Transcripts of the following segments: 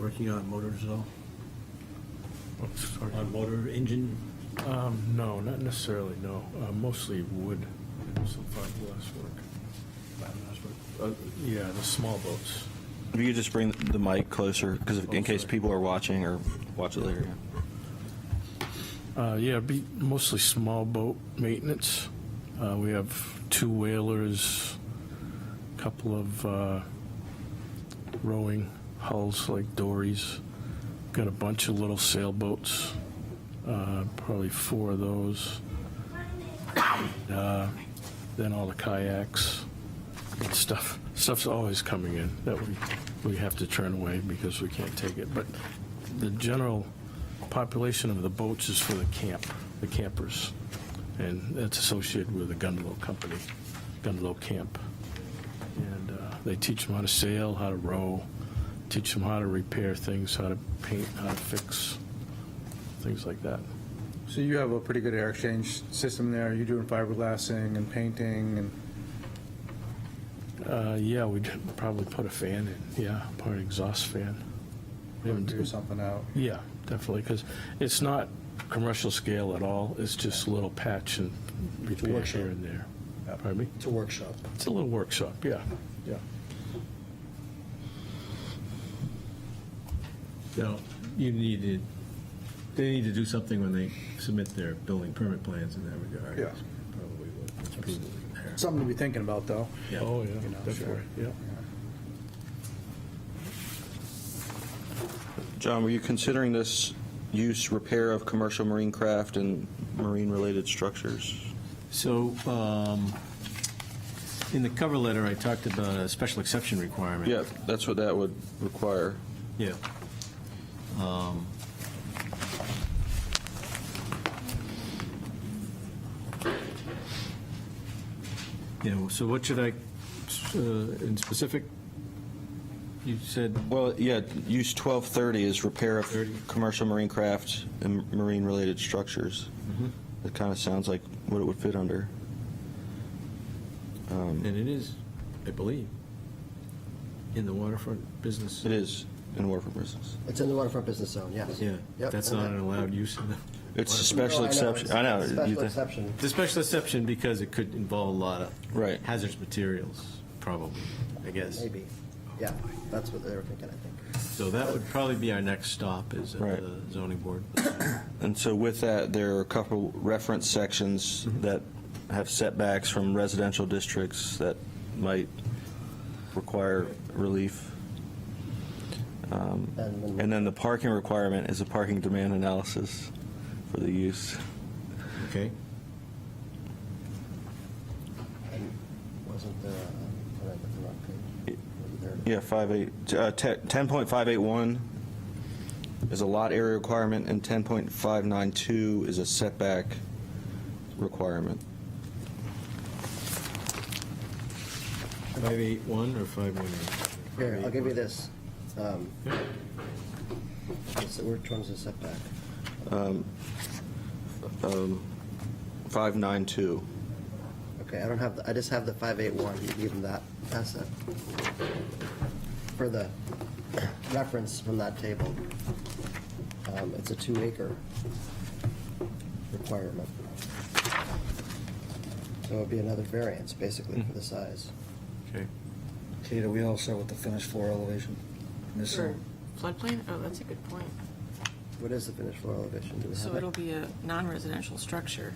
working on motors at all? On motor engine? Um, no, not necessarily, no. Uh, mostly wood and some fiberglass work. Uh, yeah, the small boats. If you could just bring the mic closer, because in case people are watching or watch it later. Uh, yeah, it'd be mostly small boat maintenance. Uh, we have two whalers, a couple of uh, rowing hulls like dories, got a bunch of little sailboats, uh, probably four of those. Uh, then all the kayaks and stuff. Stuff's always coming in that we, we have to turn away because we can't take it. But the general population of the boats is for the camp, the campers. And that's associated with the Gundalow Company, Gundalow Camp. And uh, they teach them how to sail, how to row, teach them how to repair things, how to paint, how to fix, things like that. So you have a pretty good air exchange system there. You're doing fiberglassing and painting and, Uh, Yeah, we'd probably put a fan in, yeah, put an exhaust fan. We haven't- do something out. Yeah, definitely, because it's not commercial scale at all, it's just a little patch and repair workshop. here and there. Pardon me? It's a workshop. It's a little workshop, yeah, yeah. Now, you need to, they need to do something when they submit their building permit plans in that regard. Yeah. That's Probably what's prudent there. Something to be thinking about, though. Yeah. Oh, yeah, You know, definitely, yeah. John, were you considering this use repair of commercial marine craft and marine-related structures? So, um, in the cover letter, I talked about a special exception requirement. Yeah, that's what that would require. Yeah. Um, You know, so what should I, uh, in specific, you said Well, yeah, use 1230 is repair of 30. commercial marine craft and marine-related structures. That kind of sounds like what it would fit under. And it is, I believe, in the waterfront business. It is in Waterford Business. It's in the waterfront business zone, yes. Yeah, Yep, that's and not that- an allowed use in the. It's a No, special know, exception, it's- Oh, I know. it's a you Special thi- exception. The special exception because it could involve a lot of. Right. Hazardous materials, probably, I guess. Maybe. Yeah, that's what they were thinking, I think. So that would probably be our next stop is at Right. the zoning board. And so with that, there are a couple reference sections Mm-hmm. that have setbacks from residential districts that might require relief. And then And then the parking requirement is a parking demand analysis for the use. Okay? wasn't there, uh, what I put the wrong page? Wasn't there- Yeah, 58, uh, te- 10.581 is a lot area requirement, and 10.592 is a setback requirement. Five eight one or five one eight? Here, I'll give you this. Um, so Which one's the setback? 592. Okay, I don't have, the- I just have the 581, you give them that, that's it. For the reference from that table, um, it's a two acre requirement. So it'd be another variance, basically, for the size. Okay. Kate, are we all set with the finished floor elevation? um, For Missing, floodplain? Oh, that's a good point. What is the finished floor elevation? Do we have So it? it'll be a non-residential structure,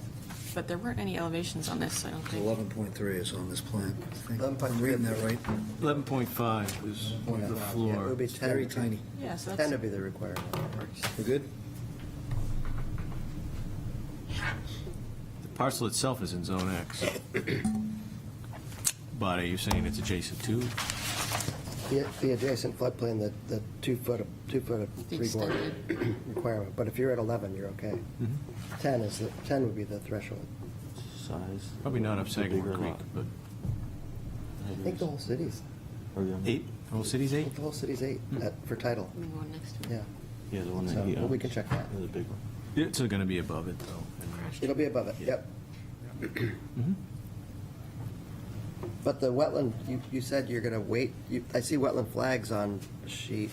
but there weren't any elevations on this, I don't think. 11.3 is on this plan. I think. I'm 11.3. reading that right. Eleven point five is Yeah, the It floor. would be 10. Very tiny. Yeah, so 10 that's, would be the requirement. We're good? The parcel itself is in zone X. But are you saying it's adjacent to? The the adjacent floodplain, the, the two foot, of- two foot of The three quarter extended. requirement, but if you're at 11, you're okay. 10 is, the 10 would be the threshold. Size. Probably not up Sagamore Creek, but. I think the whole city's, Eight, the whole city's eight? the whole city's eight at- for title, I mean, one next to it. yeah. Yeah, the one So, that uh, he but we owns. can check that. Yeah, The big one. It's going to be above it, though. It'll be above it, Yeah. yep. But the wetland, you, you said you're going to wait, you- I see wetland flags on sheet